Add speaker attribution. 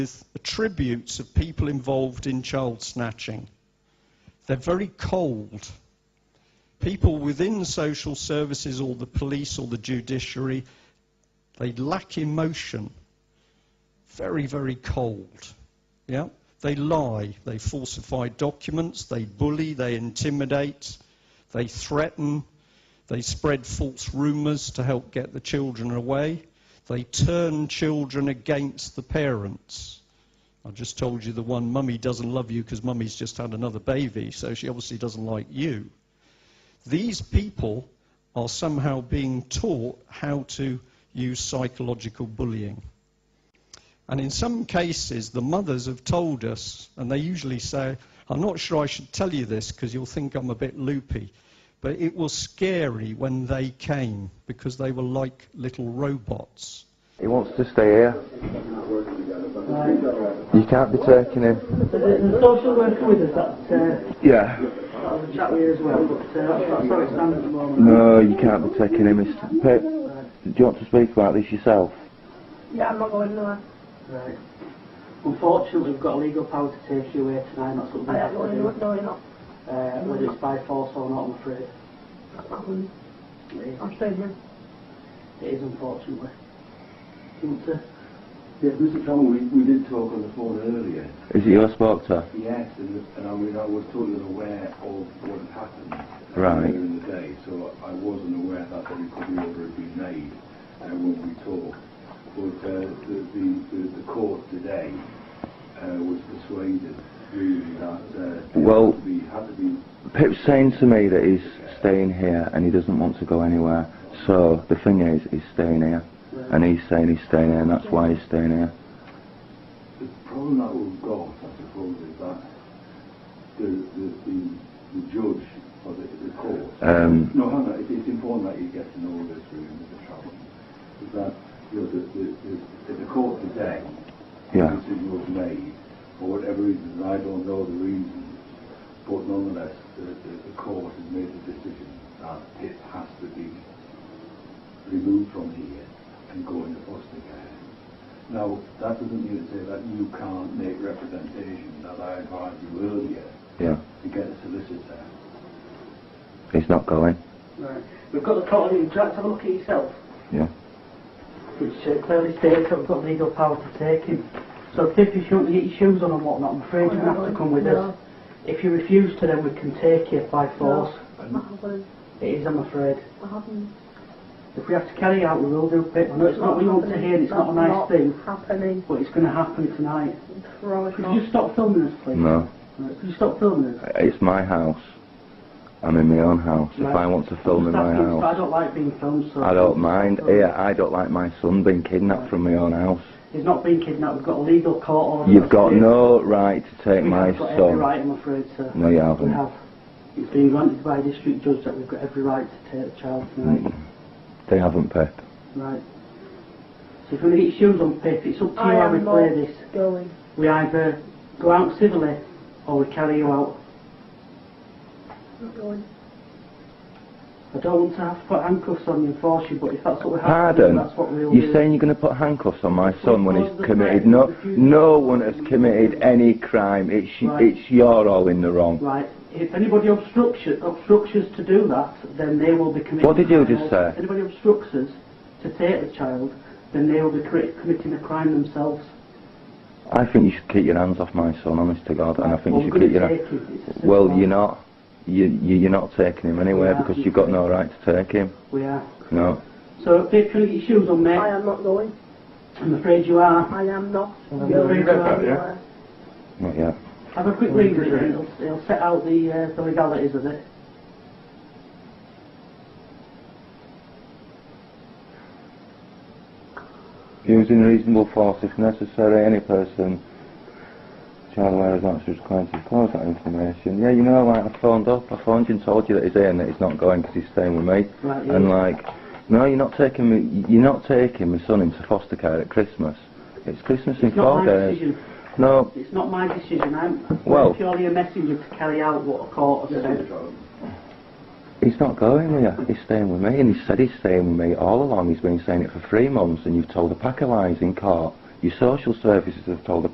Speaker 1: with attributes of people involved in child snatching. They're very cold. People within social services or the police or the judiciary, they lack emotion. Very, very cold. Yeah? They lie, they falsify documents, they bully, they intimidate, they threaten, they spread false rumours to help get the children away. They turn children against the parents. I just told you the one, mummy doesn't love you because mummy's just had another baby, so she obviously doesn't like you. These people are somehow being taught how to use psychological bullying. And in some cases, the mothers have told us, and they usually say, I'm not sure I should tell you this because you'll think I'm a bit loopy, but it was scary when they came because they were like little robots.
Speaker 2: He wants to stay here. You can't be taking him.
Speaker 3: There's a social worker with us that's uh,
Speaker 2: Yeah.
Speaker 3: I'll have a chat with you as well, but uh, that's, that's how it stands at the moment.
Speaker 2: No, you can't be taking him. It's, Pip, do you want to speak about this yourself?
Speaker 4: Yeah, I'm not going nowhere.
Speaker 3: Right. Uh, Unfortunately, we've got legal power to take you away tonight, and that's what we
Speaker 4: I
Speaker 3: have
Speaker 4: am
Speaker 3: to
Speaker 4: going
Speaker 3: do.
Speaker 4: nowhere. No, you're not.
Speaker 3: Uh, whether it's by force or not, I'm afraid.
Speaker 4: I'm-
Speaker 3: It
Speaker 4: I'm staying here.
Speaker 3: is, unfortunately. Isn't it?
Speaker 5: Yeah, Mr. Campbell, we, we did talk on the phone earlier.
Speaker 2: Is it you I spoke to?
Speaker 5: Yes, and, and I mean, I was totally aware of what had happened uh,
Speaker 2: Right.
Speaker 5: earlier in the day, so I wasn't aware that the recovery order had been made uh, when we talked. But uh, the, the, the, the court today uh, was persuaded really that uh,
Speaker 2: Well-
Speaker 5: we had to be
Speaker 2: Pip's saying to me that he's staying here and he doesn't want to go anywhere. So the thing is, he's staying here. And he's saying he's staying here and that's why he's staying here.
Speaker 5: The problem that we've got, I suppose, is that the, the, the, the judge or the, the court.
Speaker 2: Um,
Speaker 5: no, Hannah, it, it's important that you get to know this really, Mr. Travel. Is that you know, the, the, the, the court today,
Speaker 2: Yeah.
Speaker 5: the decision was made, for whatever reason, and I don't know the reasons, but nonetheless, the, the, the court has made the decision that it has to be removed from here and go into foster care. Now, that doesn't mean to say that you can't make representation that I advised you earlier
Speaker 2: Yeah.
Speaker 5: to get a solicitor.
Speaker 2: He's not going.
Speaker 3: Right. We've got the court in. Would you like to have a look at it yourself?
Speaker 2: Yeah.
Speaker 3: which uh, clearly states that we've got legal power to take him. So if you shouldn't get your shoes on and whatnot, I'm afraid you have to come with us. If you refuse to, then we can take you by force.
Speaker 4: I'm not going.
Speaker 3: It is, I'm afraid.
Speaker 4: I haven't.
Speaker 3: If we have to carry out, we will do it. I know it's not what you want to hear, and it's not a nice thing,
Speaker 4: happening.
Speaker 3: but it's going to happen tonight.
Speaker 4: Promise
Speaker 3: Could
Speaker 4: not.
Speaker 3: you stop filming us, please?
Speaker 2: No.
Speaker 3: Right, Could you stop filming us?
Speaker 2: It's my house. I'm in my own house. If I want to film in
Speaker 3: Just
Speaker 2: my
Speaker 3: asking, but I
Speaker 2: house,
Speaker 3: don't like being filmed, so...
Speaker 2: I don't mind. Yeah, I don't like my son being kidnapped from my own house.
Speaker 3: He's not being kidnapped. We've got a legal court order.
Speaker 2: You've got
Speaker 3: We
Speaker 2: no right to take
Speaker 3: have
Speaker 2: my
Speaker 3: got every
Speaker 2: son.
Speaker 3: right, I'm afraid, sir.
Speaker 2: No, you
Speaker 3: We
Speaker 2: haven't.
Speaker 3: have. It's been granted by a district judge that we've got every right to take the child tonight.
Speaker 2: Mm. They haven't, Pip.
Speaker 3: Right. So if we get your shoes on, Pip, it's up to
Speaker 4: I
Speaker 3: you how we
Speaker 4: am
Speaker 3: play
Speaker 4: not
Speaker 3: this.
Speaker 4: going.
Speaker 3: We either go out civilly or we carry you out.
Speaker 4: Not going.
Speaker 3: I don't want to have to put handcuffs on you and force you, but if that's what we have to do,
Speaker 2: Pardon?
Speaker 3: that's what we'll
Speaker 2: You're
Speaker 3: do.
Speaker 2: saying you're going to put handcuffs on my son when
Speaker 3: Because the
Speaker 2: he's committed?
Speaker 3: fact
Speaker 2: No,
Speaker 3: that you-
Speaker 2: no one has committed any crime. It's y-
Speaker 3: Right.
Speaker 2: it's you're all in the wrong.
Speaker 3: Right. If anybody obstructs you- obstructs us to do that, then they will be committing
Speaker 2: What did you
Speaker 3: crime
Speaker 2: just
Speaker 3: also.
Speaker 2: say?
Speaker 3: If anybody obstructs us to take the child, then they will be cri- committing a crime themselves.
Speaker 2: I think you should keep your hands off my son, honest to God, and I think
Speaker 3: Well,
Speaker 2: you
Speaker 3: we're
Speaker 2: should keep
Speaker 3: gonna
Speaker 2: your.
Speaker 3: take him. It's as
Speaker 2: Well,
Speaker 3: simple
Speaker 2: you're
Speaker 3: as-
Speaker 2: not. You, you you're not taking him anywhere
Speaker 3: Yeah,
Speaker 2: because
Speaker 3: you
Speaker 2: you've got
Speaker 3: can.
Speaker 2: no right to take him.
Speaker 3: We are.
Speaker 2: No.
Speaker 3: So, Pip, can you get your shoes on, mate?
Speaker 4: I am not going.
Speaker 3: I'm afraid you are.
Speaker 4: I am not
Speaker 3: Well,
Speaker 4: going.
Speaker 3: you read that,
Speaker 4: yeah?
Speaker 2: Not yet.
Speaker 3: Have a quick read of it. It'll, it'll set out the, uh, the legalities of it.
Speaker 2: Using reasonable force if necessary, any person child aware is not required to disclose that information. Yeah, you know, like I phoned up, I phoned you and told you that he's here and that he's not going because he's staying with me.
Speaker 3: Right, yeah.
Speaker 2: And like, no, you're not taking me. You're not taking my son into foster care at Christmas. It's Christmas in
Speaker 3: It's not
Speaker 2: four
Speaker 3: my
Speaker 2: days.
Speaker 3: decision.
Speaker 2: No,
Speaker 3: It's not my decision. I'm
Speaker 2: Well-
Speaker 3: purely a messenger to carry out what a court has
Speaker 5: Mr.
Speaker 3: said.
Speaker 5: Travel.
Speaker 2: he's not going with you. He's staying with me, and he said he's staying with me all along. He's been saying it for three months, and you've told a pack of lies in court. Your social services have told a